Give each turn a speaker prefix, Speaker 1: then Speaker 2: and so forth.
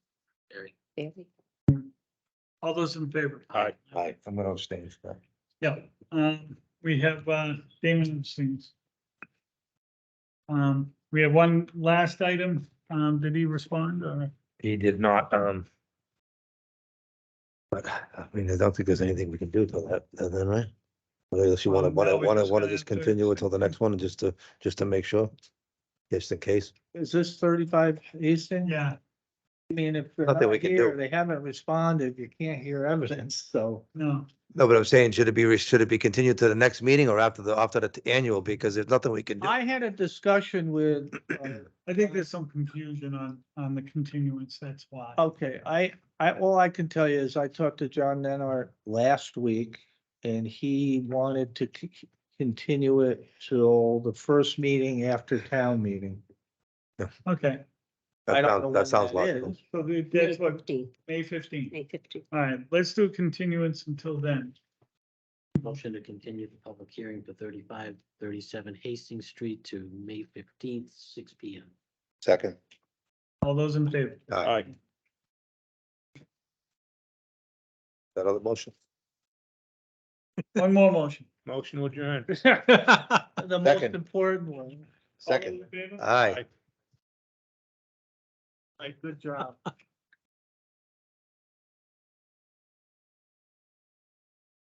Speaker 1: Barry.
Speaker 2: Barry?
Speaker 3: All those in favor?
Speaker 4: Aye.
Speaker 5: Aye, I'm gonna abstain from
Speaker 3: Yeah, um, we have, uh, Damon abstains. Um, we have one last item. Um, did he respond or?
Speaker 5: that. He did not, um. But, I mean, I don't think there's anything we can do till that, till then, right? Unless you wanna,
Speaker 3: Um, no,
Speaker 5: wanna,
Speaker 3: we're
Speaker 5: wanna,
Speaker 3: just
Speaker 5: wanna
Speaker 3: gonna have
Speaker 5: just
Speaker 3: to-
Speaker 5: continue until the next one, just to, just to make sure. Just in case.
Speaker 6: Is this thirty-five Hastings?
Speaker 3: Yeah,
Speaker 6: I mean, if they're
Speaker 5: Nothing we
Speaker 6: not
Speaker 5: can do.
Speaker 6: here, they haven't responded, you can't hear evidence, so.
Speaker 3: no,
Speaker 5: No, but I'm saying, should it be, re- should it be continued to the next meeting or after the, after the t- annual, because there's nothing we can do.
Speaker 6: I had a discussion with, uh,
Speaker 3: I think there's some confusion on, on the continuance. That's why.
Speaker 6: Okay, I, I, all I can tell you is I talked to John Nenart last week and he wanted to c- c- continue it till the first meeting after town meeting.
Speaker 3: Okay,
Speaker 6: I
Speaker 5: That
Speaker 6: don't know
Speaker 5: sounds, that
Speaker 6: when
Speaker 5: sounds
Speaker 6: that
Speaker 5: logical.
Speaker 6: is.
Speaker 3: so the-
Speaker 2: May
Speaker 3: that's what,
Speaker 2: fifteenth,
Speaker 3: May fifteenth.
Speaker 2: May fifteenth.
Speaker 3: All right, let's do continuance until then.
Speaker 1: Motion to continue the public hearing for thirty-five, thirty-seven Hastings Street to May fifteenth, six P M.
Speaker 5: Second.
Speaker 3: All those in favor?
Speaker 5: Aye.
Speaker 4: Aye.
Speaker 5: That other motion?
Speaker 3: One more motion.
Speaker 4: Motion to adjourn.
Speaker 6: The most
Speaker 5: Second.
Speaker 6: important one.
Speaker 3: All those in favor?
Speaker 5: Aye.
Speaker 3: Aye, Good job.